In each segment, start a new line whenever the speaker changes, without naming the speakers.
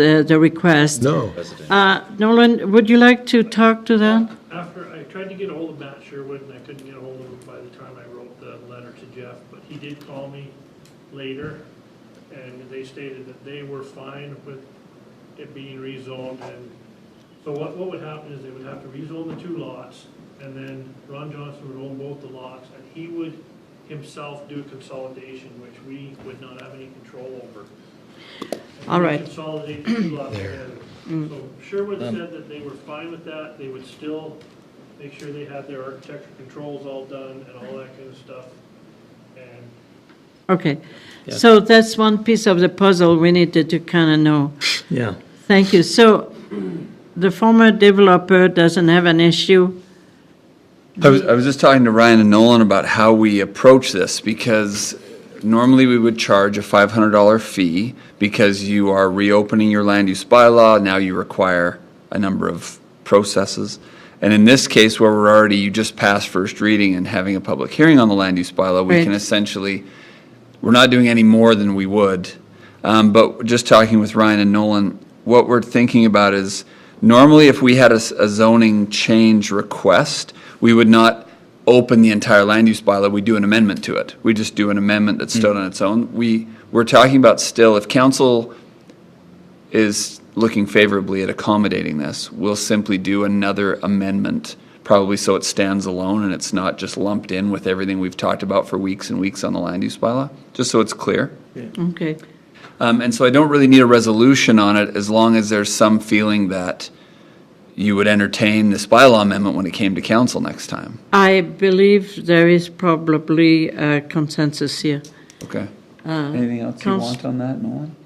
the the request.
No.
Uh, Nolan, would you like to talk to that?
After, I tried to get ahold of Matt Sherwood, and I couldn't get ahold of him by the time I wrote the letter to Jeff, but he did call me later, and they stated that they were fine with it being rezoned, and so what, what would happen is they would have to rezone the two lots, and then Ron Johnson would own both the lots, and he would himself do consolidation, which we would not have any control over.
All right. Mm.
Consolidate the two lots together. So Sherwood said that they were fine with that, they would still make sure they had their architecture controls all done and all that kind of stuff. And
Okay. So that's one piece of the puzzle we needed to kind of know.
Yeah.
Thank you. So the former developer doesn't have an issue?
I was, I was just talking to Ryan and Nolan about how we approach this because normally we would charge a $500 fee because you are reopening your land use bylaw. Now you require a number of processes. And in this case, where we're already, you just passed first reading and having a public hearing on the land use bylaw, we can
Right.
essentially, we're not doing any more than we would. Um, but just talking with Ryan and Nolan, what we're thinking about is normally if we had a, s- a zoning change request, we would not open the entire land use bylaw. We do an amendment to it. We just do an amendment that stood on its own. We we're talking about still if council is looking favorably at accommodating this, we'll simply do another amendment, probably so it stands alone and it's not just lumped in with everything we've talked about for weeks and weeks on the land use bylaw, just so it's clear.
Okay.
Um, and so I don't really need a resolution on it as long as there's some feeling that you would entertain this bylaw amendment when it came to council next time.
I believe there is probably a consensus here. Uh,
Okay. Anything else you
Council-
want on that, Nolan?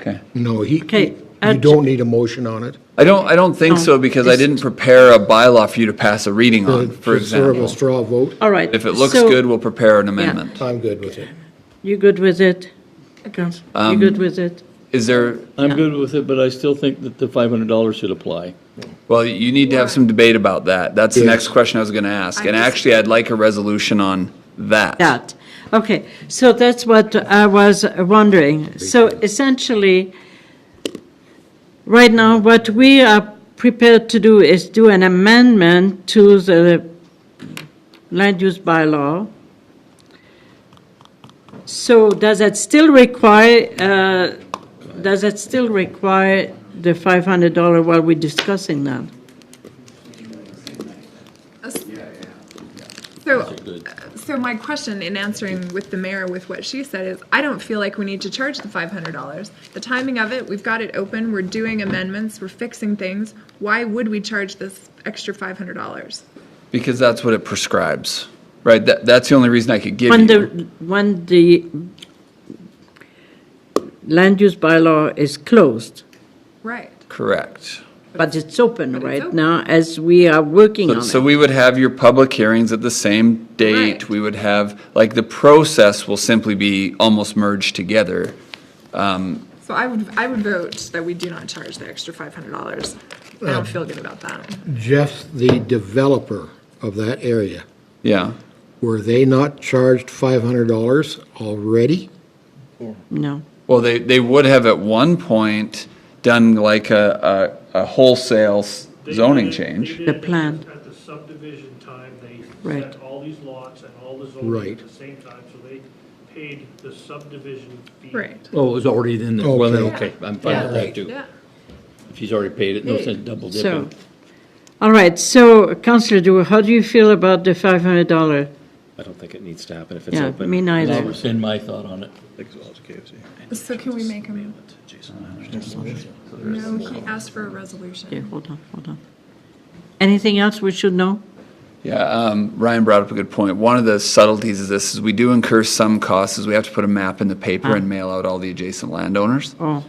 Okay.
No, he,
Okay, uh,
you don't need a motion on it.
I don't, I don't think
No,
so because I
it's-
didn't prepare a bylaw for you to pass a reading on,
It's
Uh, for
Sort of a
example.
straw vote.
All right.
If it looks
so-
good, we'll prepare an amendment.
I'm good with it.
You good with it? Counsel, you good with it?
Is there,
I'm good with it, but I still think that the five hundred dollars should apply.
well, you need to have some debate about that. That's the
Yeah.
next question I was going to ask. And actually, I'd like a resolution on that.
That, okay. So that's what I was wondering. So essentially, right now, what we are prepared to do is do an amendment to the land use bylaw. So does that still require, uh, does that still require the $500 while we're discussing that?
So, uh, so my question in answering with the mayor with what she said is, I don't feel like we need to charge the five hundred dollars. The timing of it, we've got it open, we're doing amendments, we're fixing things. Why would we charge this extra five hundred dollars?
Because that's what it prescribes, right? That, that's the only reason I could give
When the,
you.
when the land use bylaw is closed,
Right.
Correct.
but it's open
But it's
right
open.
now as we are working
So,
on
so
it.
we would have your public hearings at the same date.
Right.
We would have, like, the process will simply be almost merged together.
So I would, I would vote that we do not charge the extra five hundred dollars. I don't feel good about that.
Jeff, the developer of that area,
Yeah.
were they not charged $500 already?
No.
Well, they, they would have at one point done like a, a, a wholesale s-
they
zoning
did it- they
change.
did it
The plan.
At the subdivision time, they
Right.
set all these lots and all the zoning
Right.
at the same time, so they paid the subdivision fee.
Right.
Oh, it was already in there. Well, then, okay, I'm fine with that too.
Yeah.
If he's already paid it, no sense double
So,
dipping.
all right, so Councillor Dewar, how do you feel about the $500?
I don't think it needs to happen if it's
Yeah,
open.
me
I'll
neither.
rescind my thought on it.
So can we make him? No, he asked for a resolution.
Okay, hold on, hold on. Anything else we should know?
Yeah, um, Ryan brought up a good point. One of the subtleties of this is we do incur some costs, is we have to put a map in the paper and mail out all the adjacent landowners.
Oh,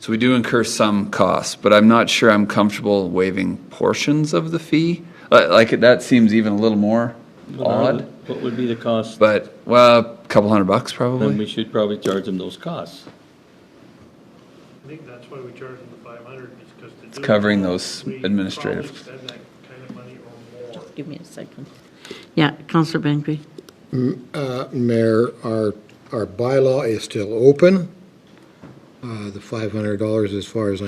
So we do incur some costs, but I'm not sure I'm comfortable waiving portions of the fee. Li- Like, that seems even a little more odd,
What would be the cost?
but, well, a couple hundred bucks
Then we
probably.
should probably charge him those costs.
I think that's why we charge them the five hundred, is because. It's
covering those administrative-
We probably spend that kind of money or more.
give me a second. Yeah, Councillor Bengry.
Uh, Mayor, our, our bylaw is still open. Uh, The $500, as far as